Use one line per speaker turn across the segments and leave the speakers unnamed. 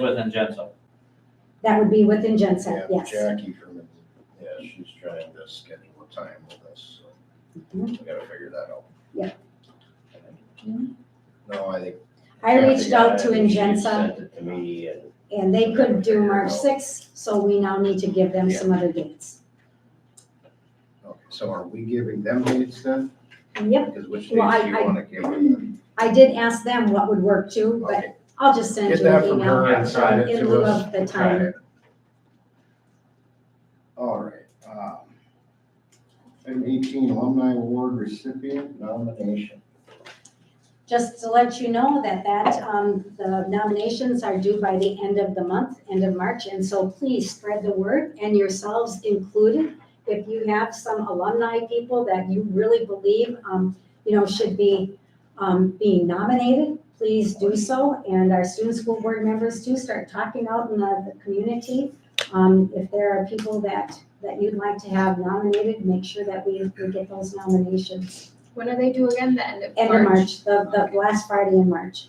within Genso.
That would be within Genset,
Yeah,
yes.
Jackie from, yeah, she's trying to schedule a time with us, so we gotta figure that out.
Mm-hmm. Yeah.
No, I think.
I reached out to
Kathy got it, she
Ingenza
Sent it to me and
and they could do
Oh.
March sixth, so we now need to give them some other dates.
Okay, so are we giving them dates then?
Yep,
Because which dates do
Well, I-
you
I-
want to give them?
I did ask them what would work too, but
Okay,
I'll just send
Get
you an
that from
email
her and send it
in
to
lieu
us.
of the time.
All right. um, Item eighteen, alumni award recipient nomination.
Just to let you know that that, um, the nominations are due by the end of the month, end of March, and so please spread the word and yourselves included. If you have some alumni people that you really believe, um, you know, should be, um, being nominated, please do so. And our student school board members too, start talking out in the, the community. Um, if there are people that, that you'd like to have nominated, make sure that we, we get those nominations.
When are they due again? The end of
End of March, the, the last Friday in March.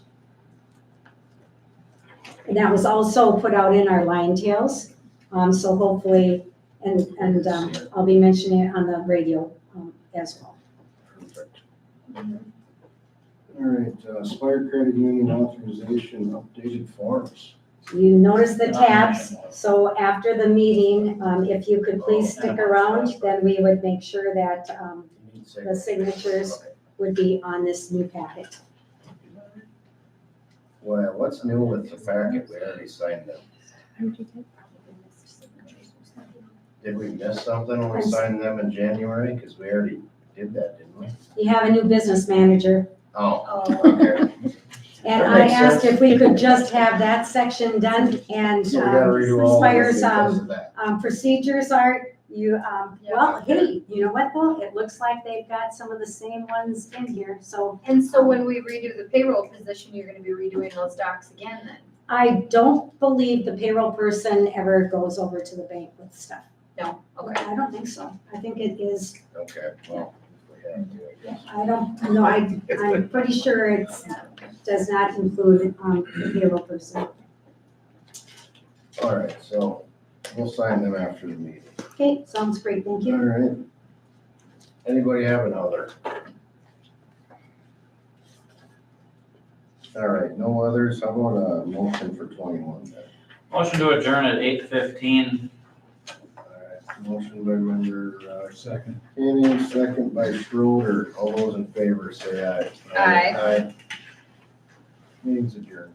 And that was also put out in our Lion Tales, um, so hopefully, and, and, um, I'll be mentioning it on the radio, um, as well.
Perfect. All right, uh, Spire Credit Union authorization updated forms.
You notice the tabs, so after the meeting, um, if you could please stick around, then we would make sure that, um, The signatures. would be on this new packet.
Well, what's new with the packet? We already signed them. Did we miss something when we
I'm s-
signed them in January? Because we already did that, didn't we?
You have a new business manager,
Oh,
Oh,
okay.
and
That
I
makes
asked
sense.
if we could just have that section done and,
So we gotta redo
um,
all of
Spire's,
this
um,
because of that.
um, procedures are, you, um,
Yeah.
well, hey, you know what though? It looks like they've got some of the same ones in here, so
and so when we redo the payroll position, you're gonna be redoing those docs again then?
I don't believe the payroll person ever goes over to the bank with stuff.
No, okay.
I don't think so. I think it is,
Okay, well, if we have to, I guess.
I don't, no, I, I'm pretty sure it's, does not include, um, the payroll person.
All right, so we'll sign them after the meeting.
Okay, sounds great, thank
All
you.
right. Anybody have another? All right, no others. I want a motion for twenty-one then.
Motion to adjourn at eight fifteen.
All right, Motion by member, uh,
Second.
Kenny, second by Schroeder. All those in favor, say aye.
Aye.
Aye. Meeting's adjourned.